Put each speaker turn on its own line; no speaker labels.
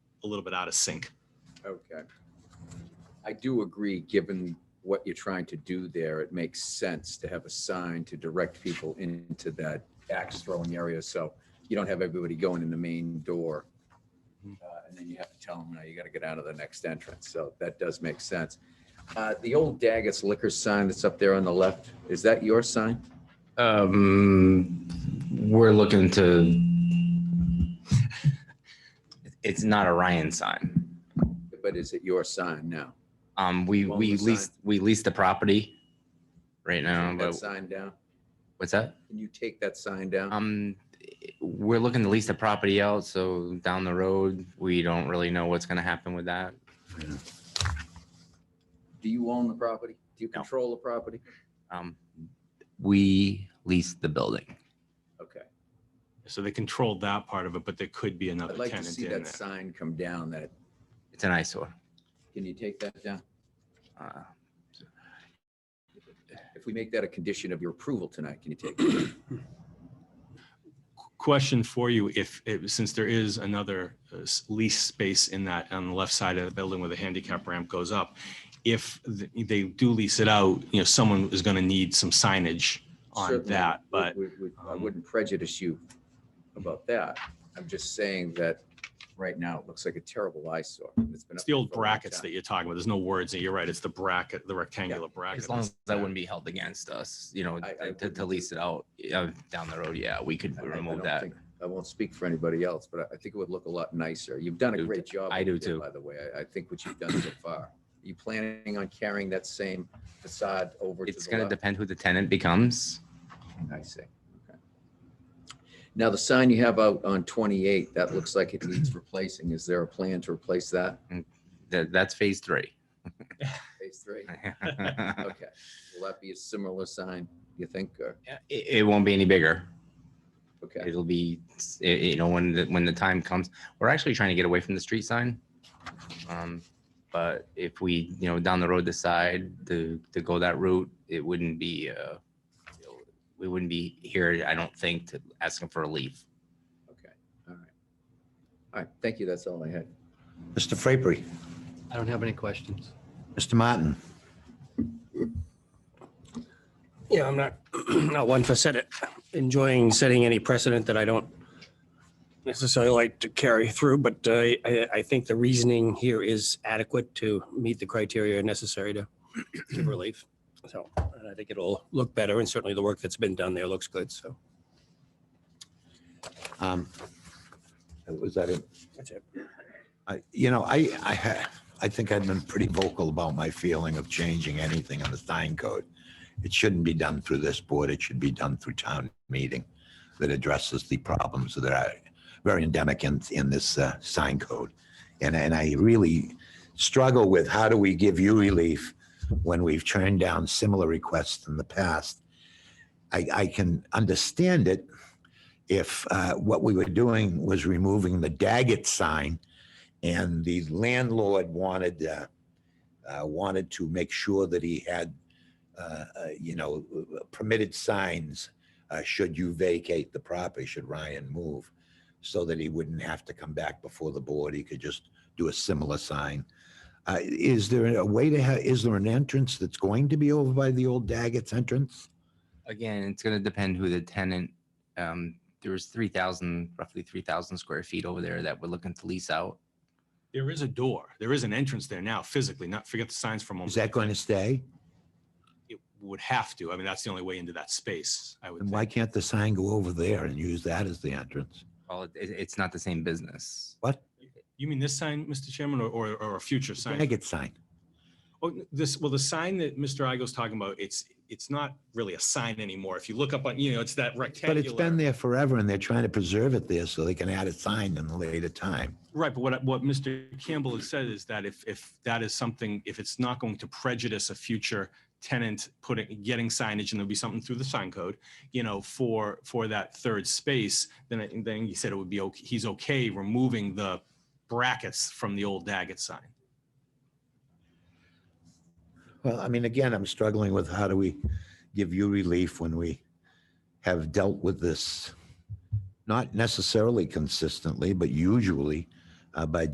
a little bit out of sync.
Okay. I do agree, given what you're trying to do there, it makes sense to have a sign to direct people into that axe throwing area, so you don't have everybody going in the main door.
Mm-hmm.
Mhm.
Uh, And then you have to tell them, no, you gotta get out of the next entrance, so that does make sense. Uh, The old Daggett's Liquor sign that's up there on the left, is that your sign?
Um, we're looking to. It's not a Ryan sign.
But is it your sign now?
Um, we
Well,
we
the
leased we leased the property right now.
Take That
But
sign down?
what's that?
Can you take that sign down?
Um, we're looking to lease the property out. So down the road, we don't really know what's going to happen with that.
Do you own the property? Do you
No.
control the property?
Um, we leased the building.
Okay.
So they controlled that part of it, but there could be another
I'd like to
tenant
see
in
that
there.
sign come down that,
It's an eyesore.
can you take that down?
Uh,
If we make that a condition of your approval tonight, can you take it?
Question for you, if, if- since there is another uh, s- lease space in that, on the left side of the building where the handicap ramp goes up, if th- they do lease it out, you know, someone is going to need some signage on
Certainly,
that,
we-
but
we- we- I
um,
wouldn't prejudice you about that. I'm just saying that right now it looks like a terrible eyesore. It's been
it's
up
the
there
old
for a long
brackets
time.
that you're talking about. There's no words. You're right. It's the bracket, the rectangular bracket.
As long as that
Yeah.
wouldn't be held against us, you know,
I- I
to, to
wouldn't.
lease it out uh, down the road, yeah, we could
I- I- I
remove
don't
that.
think- I won't speak for anybody else, but I- I think it would look a lot nicer. You've done a
Do-
great job.
I
over
do
there,
too.
By the way, I, I think what you've done so far. You planning on carrying that same facade over to the
It's gonna
left?
depend who the tenant becomes.
I see. Okay. Now, the sign you have out on 28, that looks like it needs replacing. Is there a plan to replace that?
That, that's phase three.
Phase three?
It,
Okay. Will that be a similar sign, you think? or-
it won't be any bigger.
Okay,
It'll be, it- you know, when the, when the time comes, we're actually trying to get away from the street sign. Um, But if we, you know, down the road decide to, to go that route, it wouldn't be, uh, you know, we wouldn't be here, I don't think, to asking for a leave.
okay, all right. All right, thank you. That's all I had.
Mr. Frapery,
I don't have any questions.
Mr. Martin,
Yeah, I'm not, not one for set enjoying setting any precedent that I don't necessarily like to carry through, but uh, I, I think the reasoning here is adequate to meet the criteria necessary to give relief. So and I think it'll look better and certainly the work that's been done there looks good. So
um, was that it?
that's it.
I- You know, I, I, ha- I think I've been pretty vocal about my feeling of changing anything in the sign code. It shouldn't be done through this board. It should be done through town meeting that addresses the problems that are very endemic in, in this uh, sign code. And, and I really struggle with how do we give you relief when we've turned down similar requests in the past? I, I can understand it if uh, what we were doing was removing the Daggett sign and the landlord wanted uh, uh, wanted to make sure that he had uh, uh, you know permitted signs uh, should you vacate the property should Ryan move so that he wouldn't have to come back before the board he could just do a similar sign uh, is there a way to have is there an entrance that's going to be over by the old Daggett's entrance
again, it's going to depend who the tenant. Um, there was three thousand, roughly three thousand square feet over there that we're looking to lease out.
There is a door. There is an entrance there now physically, not forget the signs for a moment.
is that going to stay
It would have to. I mean, that's the only way into that space, I would
and why
think.
can't the sign go over there and use that as the entrance
Well, it, it's not the same business.
what
You mean this sign, Mr. Chairman, or, or, or a future sign?
Daggett sign
Oh, n- this, well, the sign that Mr. Igo's talking about, it's, it's not really a sign anymore. If you look up on, you know, it's that
But
rectangular.
it's been there forever and they're trying to preserve it there so they can add a sign in a later time.
Right, but what, I- what Mr. Campbell has said is that if, if that is something, if it's not going to prejudice a future tenant putting, getting signage, and there'll be something through the sign code, you know, for, for that third space, then, I- then he said it would be, okay. he's okay removing the brackets from the old Daggett sign.
Well, I mean, again, I'm struggling with how do we give you relief when we have dealt with this, not necessarily consistently, but usually uh, by